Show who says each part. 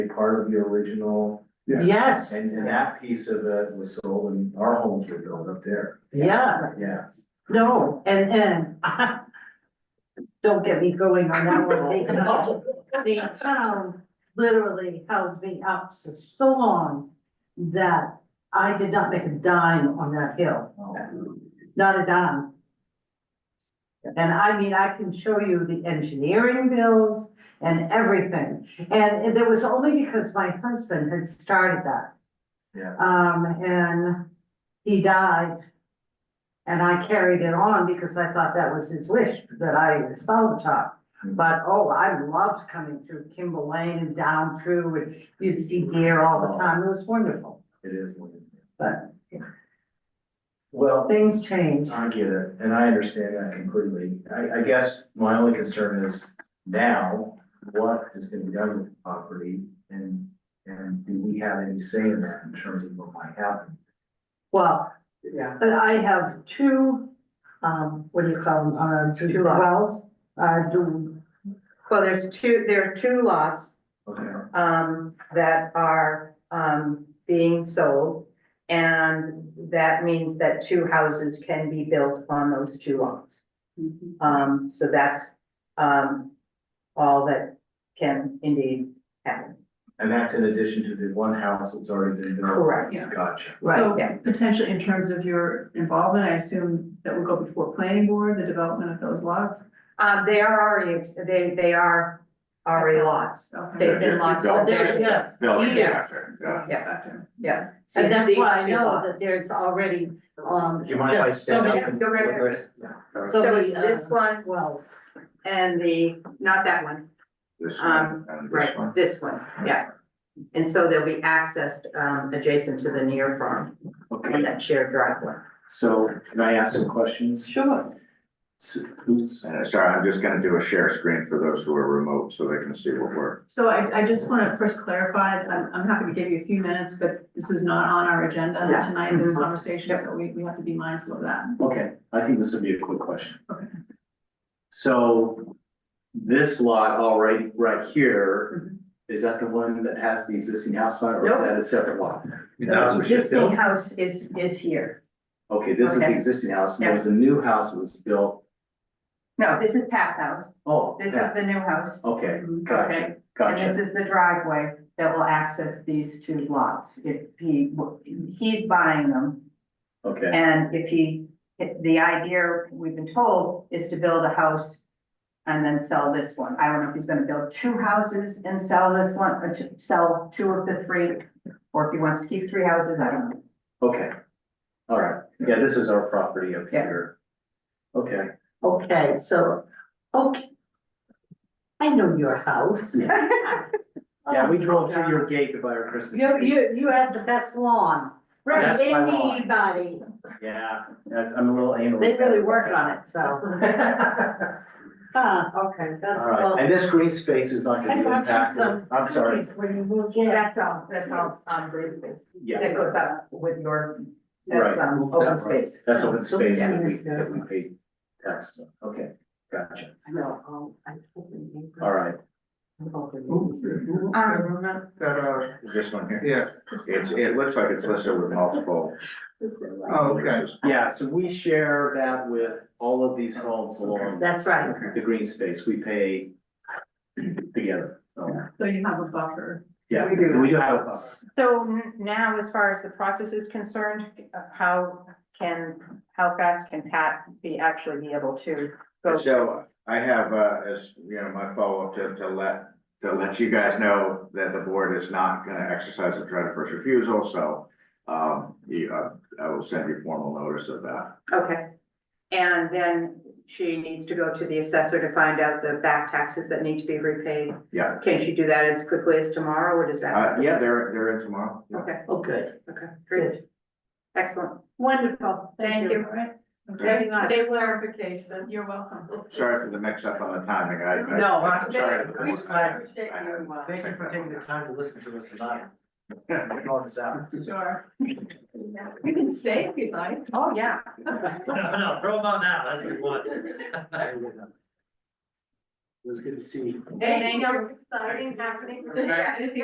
Speaker 1: part of the original,
Speaker 2: Yeah.
Speaker 3: Yes,
Speaker 1: and, and that piece of it was sold and our homes were built up there,
Speaker 3: yeah,
Speaker 1: yeah.
Speaker 3: no, and, and don't get me going on that one, they, the town literally held me up for so long that I did not make a dime on that hill, not a dime. And I mean, I can show you the engineering bills and everything, and it- it was only because my husband had started that.
Speaker 1: Yeah,
Speaker 3: Um, and he died. And I carried it on because I thought that was his wish, that I saw the top. But, oh, I loved coming through Kimball Lane and down through, and you'd see deer all the time, it was wonderful.
Speaker 1: it is wonderful.
Speaker 3: But
Speaker 1: Well,
Speaker 3: things change,
Speaker 1: I get it, and I understand that completely. I, I guess my only concern is now, what is gonna be done with the property? And, and do we have any say in that in terms of what might happen?
Speaker 3: well,
Speaker 2: Yeah.
Speaker 3: but I have two, um, what do you call them, uh, two wells, uh, do,
Speaker 2: Well, there's two, there are two lots,
Speaker 1: Okay,
Speaker 2: um, that are, um, being sold. And that means that two houses can be built on those two lots.
Speaker 3: Mm-hmm.
Speaker 2: Um, so that's, um, all that can indeed happen.
Speaker 1: and that's in addition to the one house that's already been built?
Speaker 2: Correct.
Speaker 4: Yeah.
Speaker 1: Gotcha.
Speaker 2: Right, yeah.
Speaker 4: So potentially in terms of your involvement, I assume that will go before planning board, the development of those lots?
Speaker 2: Um, they are already, they, they are already lots.
Speaker 4: Okay.
Speaker 2: They've been lots.
Speaker 5: Yeah,
Speaker 3: they're- yes,
Speaker 5: Building
Speaker 3: yes.
Speaker 5: factor, yeah.
Speaker 2: Yeah.
Speaker 4: Factor.
Speaker 2: Yeah. So
Speaker 3: and that's
Speaker 2: these
Speaker 3: why I
Speaker 2: two
Speaker 3: know
Speaker 2: lots.
Speaker 3: Oh, that there's already, um,
Speaker 1: Do you mind if I
Speaker 3: just so
Speaker 1: stand
Speaker 3: many
Speaker 1: up? and-
Speaker 2: Go right ahead.
Speaker 3: so
Speaker 2: So
Speaker 3: many,
Speaker 2: it's this
Speaker 3: uh,
Speaker 2: one
Speaker 3: wells.
Speaker 2: and the, not that one,
Speaker 5: This
Speaker 2: Um,
Speaker 5: one and this
Speaker 2: Right,
Speaker 5: one.
Speaker 2: this one, yeah. And so they'll be accessed um adjacent to the near farm on
Speaker 1: Okay,
Speaker 2: that shared driveway.
Speaker 1: so can I ask some questions?
Speaker 4: Sure.
Speaker 1: S- Who's,
Speaker 5: And uh, sorry, I'm just gonna do a share screen for those who are remote so they can see what we're.
Speaker 4: So I, I just want to first clarify, I'm, I'm happy to give you a few minutes, but this is not on our agenda
Speaker 2: Yeah.
Speaker 4: tonight, this
Speaker 2: Mhm.
Speaker 4: conversation,
Speaker 2: Yep.
Speaker 4: so we, we have to be mindful of that.
Speaker 1: okay, I think this would be a quick question.
Speaker 4: Okay.
Speaker 1: So this lot all right, right here,
Speaker 4: Mhm.
Speaker 1: is that the one that has the existing house on it, or is
Speaker 2: Mm-hmm. Nope.
Speaker 1: that a separate lot?
Speaker 5: That was
Speaker 1: just built?
Speaker 2: house is is here.
Speaker 1: Okay, this is the
Speaker 2: Okay.
Speaker 1: existing house, and there's the new house that was built,
Speaker 2: No, this is Pat's house.
Speaker 1: oh, yeah,
Speaker 2: the new house.
Speaker 1: okay,
Speaker 2: Okay.
Speaker 1: gotcha, gotcha.
Speaker 2: is the driveway that will access these two lots. If he, he's buying them.
Speaker 1: Okay,
Speaker 2: And if he, if the idea we've been told is to build a house and then sell this one. I don't know if he's gonna build two houses and sell this one, or to sell two of the three. Or if he wants to keep three houses, I don't know.
Speaker 1: okay. All right, yeah, this is our property up
Speaker 2: Yeah.
Speaker 1: here. Okay,
Speaker 3: Okay, so, okay. I know your house.
Speaker 1: yeah, we drove through your gate to buy our Christmas.
Speaker 3: Oh. You,
Speaker 1: trees.
Speaker 3: you, you have the best lawn.
Speaker 1: Right. That's my lawn.
Speaker 3: Anybody,
Speaker 1: Yeah, that's, I'm a little anal.
Speaker 3: they really work on it, so. Huh, Uh, okay, that's
Speaker 1: All right,
Speaker 3: well.
Speaker 1: and this green space is not
Speaker 3: I
Speaker 1: gonna be
Speaker 3: thought you
Speaker 1: impacted,
Speaker 3: said-
Speaker 1: I'm sorry,
Speaker 3: When you move in.
Speaker 2: That's all, that's all on green space.
Speaker 1: yeah,
Speaker 2: That goes up with your,
Speaker 1: Right.
Speaker 2: that's um, open space.
Speaker 1: that's open space that we,
Speaker 3: Yeah.
Speaker 1: that we paid tax on, okay, gotcha,
Speaker 3: I know, um, I totally agree.
Speaker 1: all right.
Speaker 3: I'm open.
Speaker 5: Ooh. This one here.
Speaker 6: Yeah,
Speaker 5: It's, it looks like it's listed with multiple.
Speaker 6: Oh, okay.
Speaker 1: Yeah, so we share that with all of these homes along
Speaker 3: That's right,
Speaker 1: the green space, we pay together, so,
Speaker 4: So you have a buffer.
Speaker 1: yeah,
Speaker 3: We do.
Speaker 1: so we do have a buffer.
Speaker 2: So n- now, as far as the process is concerned, uh, how can, how fast can Pat be actually be able to go?
Speaker 5: So I have, uh, as, you know, my follow-up to, to let, to let you guys know that the board is not gonna exercise its right of first refusal, so. Um, you, uh, I will send you formal notice of that.
Speaker 2: Okay. And then she needs to go to the assessor to find out the back taxes that need to be repaid.
Speaker 5: Yeah,
Speaker 2: Can she do that as quickly as tomorrow, or does that?
Speaker 5: uh, yeah, they're, they're in tomorrow. Yeah.
Speaker 2: Okay,
Speaker 3: oh, good,
Speaker 2: okay, great. Excellent.
Speaker 3: wonderful, thank you.
Speaker 4: Okay.
Speaker 3: Thanks
Speaker 4: clarification. You're welcome.
Speaker 5: Sorry for the mix-up on the timing, I. I-
Speaker 3: No,
Speaker 5: I'm
Speaker 3: it's
Speaker 5: sorry.
Speaker 3: okay.
Speaker 1: We- I
Speaker 4: appreciate
Speaker 1: Thank you for taking the time to listen to us tonight. All this out.
Speaker 4: Sure. You can stay if you'd like.
Speaker 2: Oh, yeah.
Speaker 7: No, no, throw them out now, that's what you want.
Speaker 1: It was good to see you.
Speaker 4: Anything
Speaker 2: else exciting happening?
Speaker 4: Yeah.